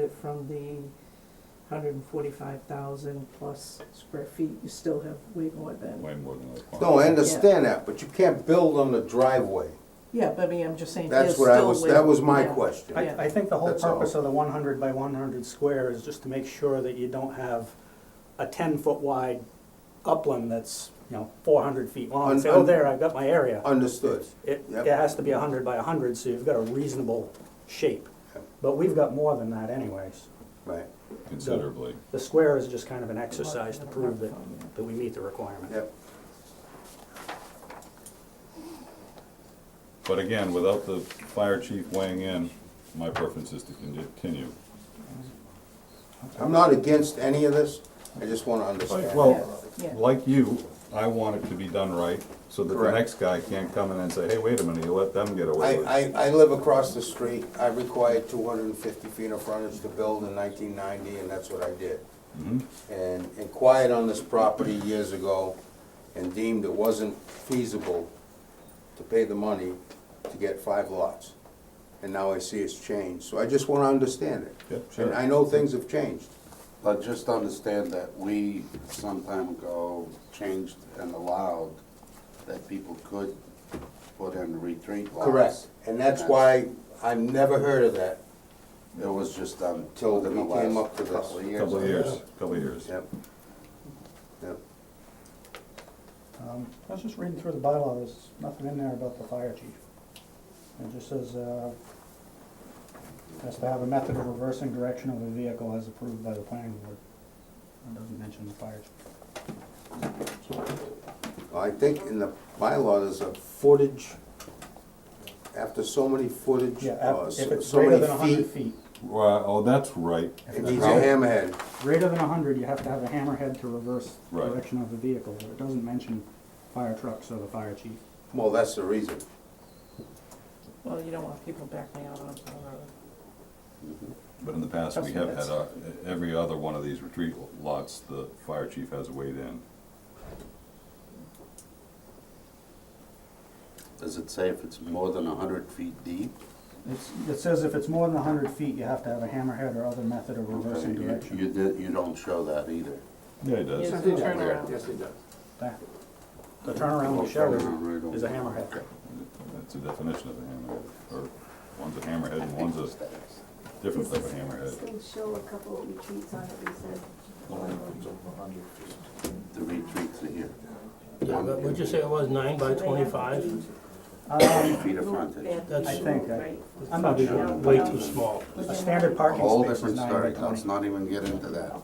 it from the hundred and forty-five thousand plus square feet, you still have way more than. way more than the requirement. No, I understand that, but you can't build on the driveway. Yeah, but I mean, I'm just saying, there's That's still what I was, way- that was my yeah. question. Yeah. I, I think the whole That's all. purpose of the one hundred by one hundred square is just to make sure that you don't have a ten-foot wide upland that's, you know, four hundred feet long, and say, Un- oh, un- there, I've got my area. Understood. It, Yep. it has to be hundred by hundred, so you've got a reasonable shape. Yep. But we've got more than that anyways. Right, Considerably. The square is just kind of an exercise to prove that, that we meet the requirement. yep. But again, without the fire chief weighing in, my preference is to continue. I'm not against any of this, I just wanna understand. Well, Yeah, yeah. like you, I want it to be done right, so that the Correct. next guy can't come in and say, hey, wait a minute, you let them get away I, with it. I, I live across the street, I required two hundred and fifty feet of frontage to build in nineteen ninety, and that's what I did. Mm-hmm. And inquired on this property years ago, and deemed it wasn't feasible to pay the money to get five lots. And now I see it's changed, so I just wanna understand it. Yep, And I sure. know things have changed. But just understand that we some time ago changed and allowed that people could put in retreat lots. Correct, and that's why I've never heard of that. It was just done Till within the we came last up to this. couple of years. Couple of years, couple of years. Yep. Yep. Um, I was just reading through the bylaw, there's nothing in there about the fire chief. It just says, uh, has to have a method of reversing direction of the vehicle as approved by the planning board. It doesn't mention the fire chief. Well, I think in the bylaw, there's a footage, after so many footage, Yeah, uh, af- if so it's so greater than many hundred feet, feet, Well, oh, that's right. it needs a How- hammerhead. greater than hundred, you have to have a hammerhead to reverse Right. direction of the vehicle, but it doesn't mention fire trucks or the fire chief. Well, that's the reason. Well, you don't want people backing out onto the road. But in the past, we That's- have had, that's- uh, every other one of these retreat lots, the fire chief has weighed in. Does it say if it's more than hundred feet deep? It's, it says if it's more than hundred feet, you have to have a hammerhead or other method of Okay, reversing you- direction. You did, you don't show that either. Yeah, he does. Yes, it's a turnaround. Yes, it does. That- The turnaround we show is, Turnaround right is a over. hammerhead. That's a definition of a hammerhead, or one's a hammerhead and one's a different type of hammerhead. Still show a couple of retreats on it, we said. The retreats are here, Yeah, but what'd you say it was, nine by twenty-five? Um, feet of frontage. That's- I think, I- Right. I'm not sure. Way too small. A standard A parking whole space is different nine by story, let's twenty. not even get into that.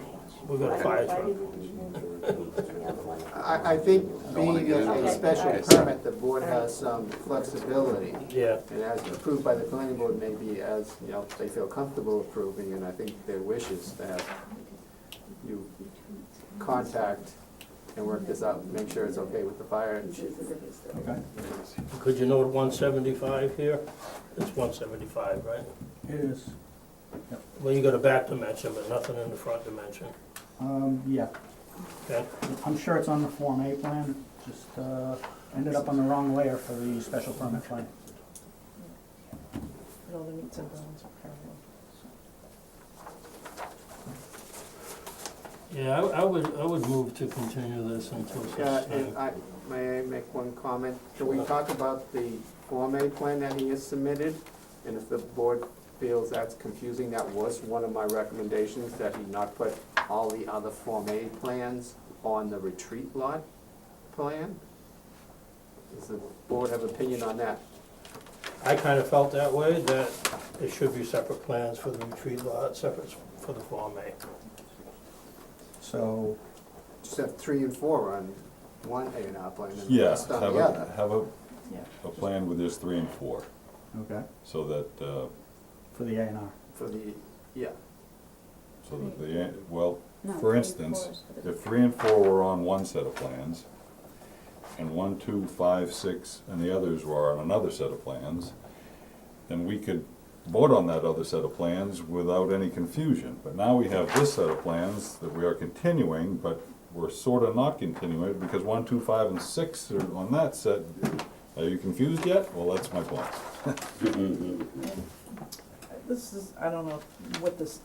We got a fire Why truck. didn't we even do the other one? I, I think wanna being get into a a it. special Okay. permit, the board has some flexibility. Yeah, And as approved by the planning board, maybe as, you know, they feel comfortable approving, and I think their wish is to have you contact and work this out, make sure it's okay with the fire chief. This is a good story. could you note one seventy-five here? It's one seventy-five, right? It is, Well, you got a back dimension, but nothing in the front dimension, um, yeah, okay? I'm sure it's on the Form A plan, just, uh, ended up on the wrong layer for the special permit plan. And all the meets and bounds are parallel. Yeah, I, I would, I would move to continue this until such Yeah, Uh, and time. I, may I make one comment? Can we talk about the Form A plan that he has submitted? And if the board feels that's confusing, that was one of my recommendations, that he not put all the other Form A plans on the retreat lot plan? Does the board have opinion on that? I kind of felt that way, that there should be separate plans for the retreat lot, separate for the Form A. So, Just have three and four on one A and R plan and the Yeah, rest on have the a, other. have a, Yeah. a plan with just three and four, okay, so that, uh, for the A and R. For the, yeah, so that the, well, for instance, if three and four were on one set of plans, and one, two, five, six, and the others were on another set of plans, then we could vote on that other set of plans without any confusion. But now we have this set of plans that we are continuing, but we're sort of not continuing, because one, two, five, and six are on that set. Are you confused yet? Well, that's my point. This is, I don't know what this